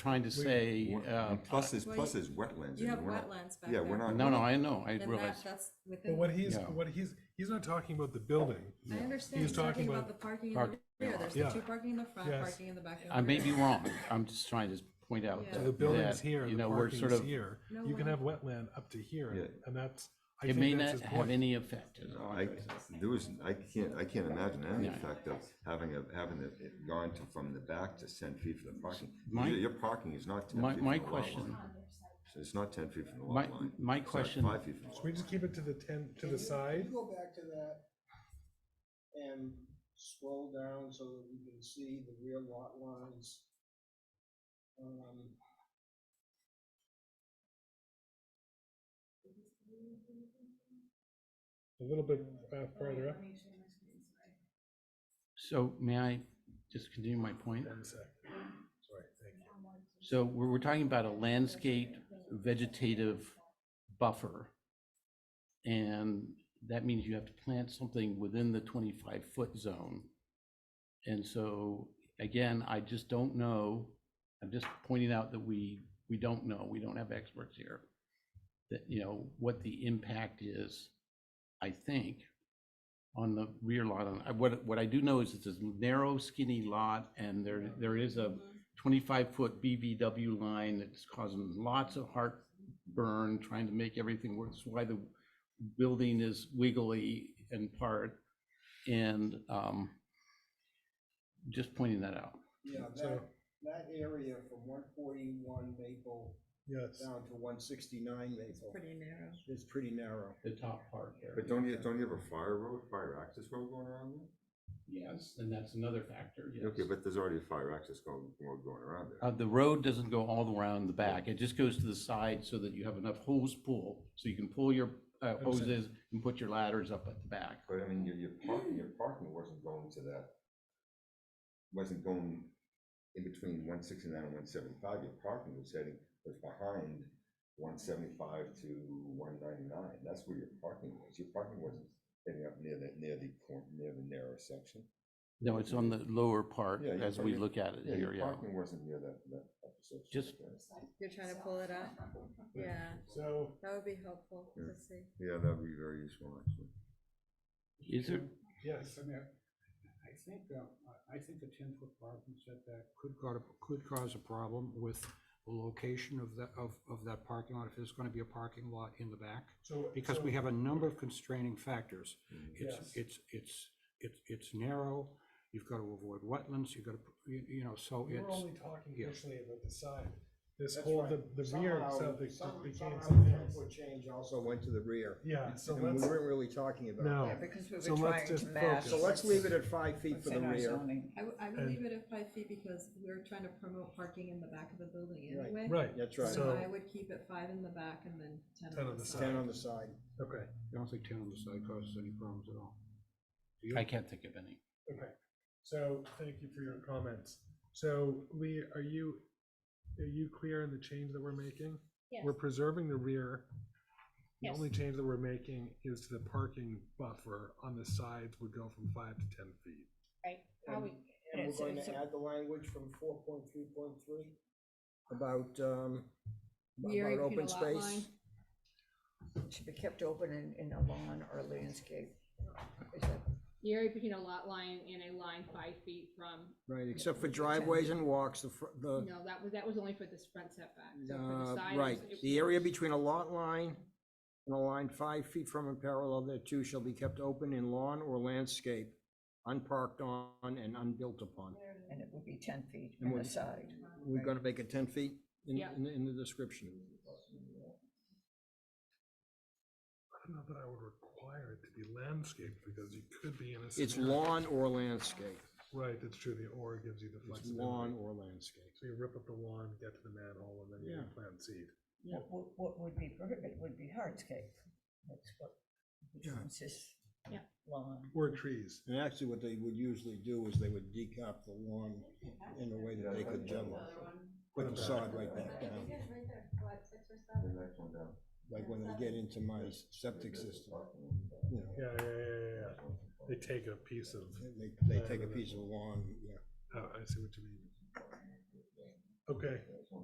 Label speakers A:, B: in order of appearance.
A: trying to say, uh,
B: Plus there's,
C: Well,
B: plus
C: you-
B: there's wetlands.
C: you
B: and
C: have
B: we're not-
C: wetlands back
B: Yeah, we're
C: there.
B: not.
A: no, no, I know, I
C: Then that,
A: realize.
C: that's
D: But
C: within,
D: what he's,
A: Yeah.
D: what he's, he's not talking about the building.
C: I understand,
D: He's
C: he's talking
D: talking
C: about
D: about
C: the parking in the
A: parking
C: rear,
A: lot.
C: there's
D: Yeah.
C: the two parking in the front,
D: Yes.
C: parking in the back. and
A: I may
C: rear.
A: be wrong. I'm just trying to point out
C: Yeah.
A: that.
C: So
D: The building's here,
A: you
D: the
A: know, we're sort
D: parking's
A: of.
D: here.
C: No
D: You can
C: way.
D: have wetland up to here,
B: Yeah.
D: and that's, I
A: It may
D: think that's
A: not
D: his
A: have
D: point.
A: any effect. is all
B: I,
A: I'm trying to say.
B: there was, I can't, I can't imagine any
A: Yeah.
B: effect of having a, having it it gone to, from the back to ten feet from the parking.
A: My-
B: Your your parking is not ten
A: My-
B: feet from the
A: my
B: lot
A: question-
B: line. So It's not ten feet from the
A: My-
B: lot line.
A: my
B: It's not
A: question-
B: Five feet from the
D: Should
B: lot
D: we
B: line.
D: just keep it to the ten, to the side?
E: Go back to that and scroll down so that we can see the rear lot lines. Um,
D: A little bit uh, farther up?
A: So may I just continue my point?
D: One sec. Sorry, thank you.
A: So we're, we're talking about a landscape vegetative buffer. And that means you have to plant something within the twenty-five foot zone. And so, again, I just don't know, I'm just pointing out that we, we don't know, we don't have experts here. That, you know, what the impact is, I think, on the rear lot. And I- What, what I do know is it's a narrow skinny lot and there, there is a
C: Mhm.
A: 25-foot BVW line that's causing lots of heartburn, trying to make everything work. That's why the building is wiggly in part. And um, just pointing that out.
E: Yeah, that,
D: So-
E: that area from one forty-one Maple
D: Yes.
E: down to one sixty-nine Maple
C: Pretty narrow.
E: is pretty narrow.
A: The top part there.
B: But don't you, don't you have a fire road, fire access road going around there?
A: Yes, and that's another factor, yes.
B: Okay, but there's already a fire access going, road going around there.
A: Uh, The road doesn't go all the way around the back. It just goes to the side so that you have enough hose pull, so you can pull your uh,
D: Understand.
A: hoses and put your ladders up at the back.
B: But I mean, your, your parking, your parking wasn't going to that, wasn't going in between one sixty-nine and one seventy-five, your parking was heading, was behind one seventy-five to one ninety-nine, that's where your parking was, your parking wasn't heading up near the, near the cor- near the narrow section.
A: No, it's on the lower part
B: Yeah, your
A: as we
B: parking-
A: look at it
B: Yeah,
A: here,
B: your
A: yeah.
B: parking wasn't near that, that upper section.
A: Just-
C: You're trying to pull it up? Yeah,
D: So,
C: that would be helpful
B: Yeah.
C: to see.
B: Yeah, that'd be very useful, actually.
A: Is there,
D: yes,
F: I mean, I think, uh, I I think a ten-foot parking setback could cause, could cause a problem with the location of that, of, of that parking lot, if there's gonna be a parking lot in the back,
D: so.
F: because we have a number of constraining factors. It's,
D: Yes.
F: it's, it's, it's, it's narrow, you've gotta avoid wetlands, you've gotta, you, you know, so
D: We're
F: it's,
D: only talking
F: yeah.
D: initially about the side. This
E: That's
D: whole,
E: right.
D: the, the rear
E: Somehow-
D: itself it
E: some-
D: became
E: somehow
D: something
E: the
D: else.
E: foot Change also went to the rear.
D: Yeah, so
E: And we
D: let's,
E: weren't really talking about
D: No.
E: that.
G: Yeah, because we
D: So
G: were
D: let's
G: trying
D: just
G: to match.
D: focus.
E: So let's leave it at five feet
G: what's
E: for the
G: in our
E: rear.
G: zoning.
C: I, would- I would
D: And-
C: leave it at five feet because we're trying to promote parking in the back of the building
E: Right.
C: anyway.
D: right.
E: That's right.
C: So
D: So,
C: I would keep it five in the back and then ten on the
E: Ten
C: side.
E: on the side.
D: okay,
F: I don't think ten on the side causes any problems at all. Do you?
A: I can't think of any.
D: okay. So thank you for your comments. So Lee, are you, are you clear in the change that we're making?
H: Yes,
D: We're preserving the rear. The
H: Yes.
D: only change that we're making is to the parking buffer on the sides would go from five to ten feet.
H: right. How
E: And-
H: we-
E: And we're
H: it's-
E: going
H: it's
E: to
H: a-
E: add the language from four point three point three about, um,
C: Rear
E: about
C: and
E: open
C: lot line.
E: space.
G: It Should be kept open in, in a lawn or landscape. Is that-
H: The area between a lot line and a line five feet from,
E: Right, except for driveways and walks, the, fr- the,
H: no, that was, that was only for this front setback. So for the
E: uh,
H: side, it
E: right,
H: was- it
E: the area
H: was-
E: between a lot line and a line five feet from and parallel thereto shall be kept open in lawn or landscape, unparked on and unbuilt upon.
G: And it would be ten feet
E: And
G: on
E: we're-
G: the side.
E: We're gonna make it ten feet in,
H: Yeah.
E: in, the- in the description.
D: I don't know that I would require it to be landscaped because you could be in a.
E: It's
D: scenario-
E: lawn or landscape,
D: Right, that's true. The or gives you the
E: it's
D: flexibility.
E: lawn or landscape.
D: So you rip up the lawn, get to the manhole, and then you
E: Yeah.
D: plant seed.
G: What, what- what would be prohibited would be hardscape. That's what, which
E: Yeah.
G: consists
H: Yeah.
G: lawn.
D: Or trees.
E: And actually, what they would usually do is they would decop the lawn in a way that they could juggle, put the sod right back down,
B: The next one down.
E: like when they get into my septic system, you know.
D: Yeah, yeah, yeah, yeah, yeah. They take a piece of,
E: They, they take a piece of lawn, yeah.
D: oh, I see what you mean. Okay.